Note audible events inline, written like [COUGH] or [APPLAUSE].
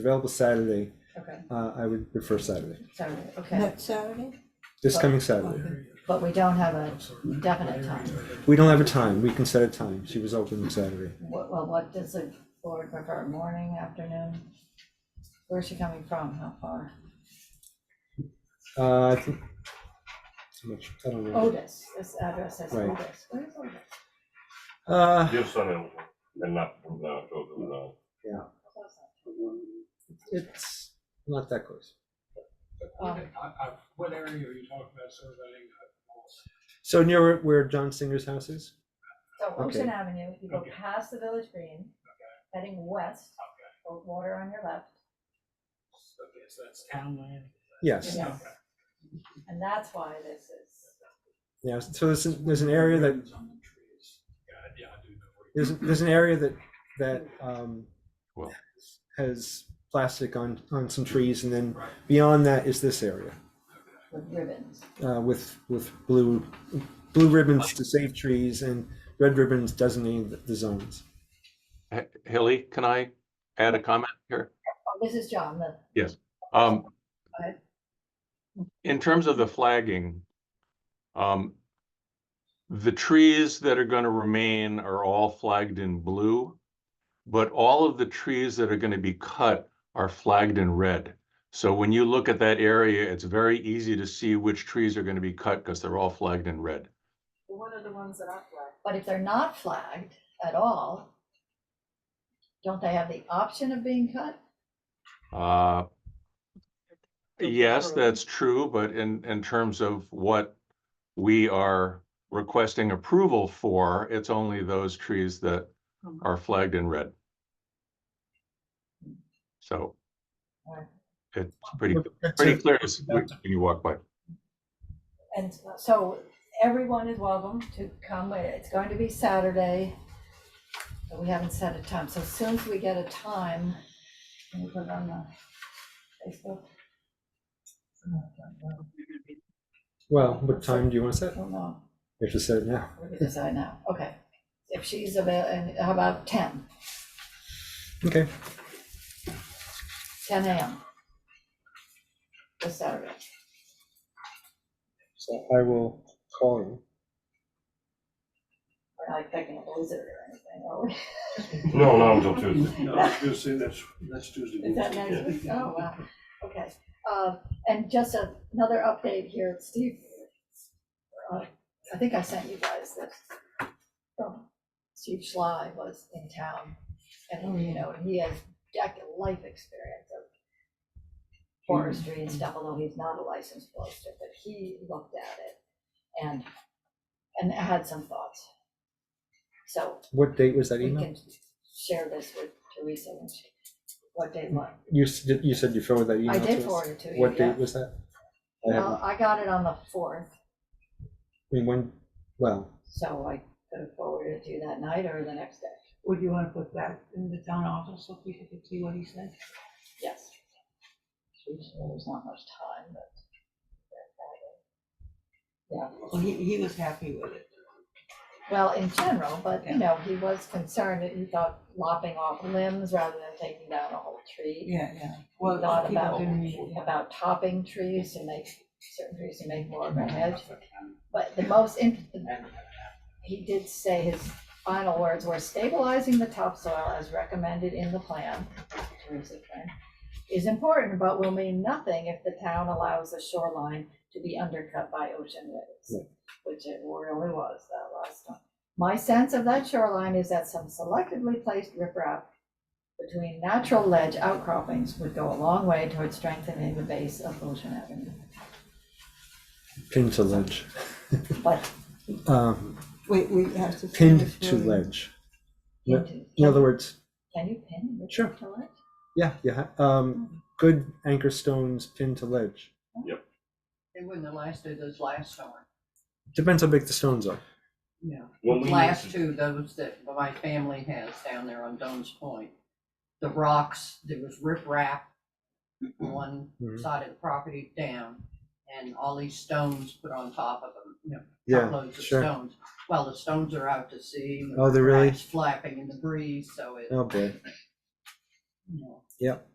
available Saturday, Okay, uh, I would prefer Saturday, sorry, okay, What Saturday? this coming Saturday. but we don't have a definite time. We don't have a time, we can set a time, she was open on Saturday. What, well, what does the board prefer, morning, afternoon? Where's she coming from, how far? Uh, I think, how much, I don't know. Otis, this address says Right. Otis, where is Otis? Uh, Just on it, and not from now till tomorrow. it's not that close. Um, I- I- What area are you talking about surveying? So near where John Singer's house is? So Ocean Okay. Avenue, you go Okay. past the Village Green, heading west, o- water on your left, Okay, so that's town land? Yes, Yeah. and that's why this is, yeah, so there's, an- there's an area that, Ribbons on the trees. Yeah, yeah, I do know where you- there's, there's an area that, that, um, Well. has plastic on, on some trees, and then Right. beyond that is this area. with ribbons. uh, with with blue blue ribbons to save trees and red ribbons designating the, the zones. H- Hilly, can I add a comment here? Oh, This is John, the, Um, ahead. in terms of the flagging, um, the trees that are going to remain are all flagged in blue, but all of the trees that are going to be cut are flagged in red. So when you look at that area, it's very easy to see which trees are going to be cut because they're all flagged in red. What are the ones that are flagged? but if they're not flagged at all, don't they have the option of being cut? Uh, Yes, that's true, but in, in terms of what we are requesting approval for, it's only those trees that Mhm. are flagged in red. So Alright. it's pretty, pretty clear as when you walk by. And so everyone is welcome to come. It's going to be Saturday. but We haven't set a time. So as soon as we get a time, can we put it on the Facebook? I Well, what time do you want to set? don't know. We have to set it now. We can decide now. Okay. If she's avail, and how about ten? Okay. 10 AM. This Saturday. So I will call you. We're not expecting a blizzard or anything, are we? No, not until Tuesday. No, I was gonna say that's, that's Tuesday. Is that next week? Oh, wow, [LAUGHS] okay. Uh, And just a- another update here, Steve, uh, I think I sent you guys this. from Steve Schley was in town, and, you know, he has decade life experience of forestry and stuff, although he's not a licensed forester, but he looked at it and, and had some thoughts. So What date was that we email? can share this with Teresa when she, what day, what? You s- did- you said you forwarded that email I to did us? forward it to you, What yeah. date was that? I haven't- Well, I got it on the fourth, I mean, when? Well, so I could have forwarded it to you that night or the next day, Would you wanna put that in the town office so people could see what he said? yes. Geez, well, There's not much time, but. Well, he, he was happy with it. Well, in general, but you know, he was concerned that he thought lopping off limbs rather than taking down a whole tree. Yeah, yeah. Well, Well, Thought people about- didn't really- yeah. About topping trees to make, certain trees to make more of a hedge. But the most, in- he did say his final words were stabilizing the topsoil as recommended in the plan, Teresa plan, is important, but will mean nothing if the town allows the shoreline to be undercut by ocean waves, which it really was that last time. My sense of that shoreline is that some selectively placed riprap between natural ledge outcroppings would go a long way toward strengthening the base of Ocean Avenue. pinned to ledge. But Um, Wait, we have to. pinned finish to voting. ledge. Yeah. into- In other words, Can you pin Sure. Richard to it? yeah, yeah. Um, good anchor stones pinned to ledge. They wouldn't have lasted as last summer. Depends how big the stones are. Yeah. When we Last used two, those that my family has down there on Dunn's Point. The rocks, there was riprap on one Mhm. side of the property down and all these stones put on top of them, you know, Yeah, truckloads of sure. stones. Well, the stones are out to sea. and the Oh, they're really- riprap's Flapping in the breeze, so it, Oh boy. you know. Yep.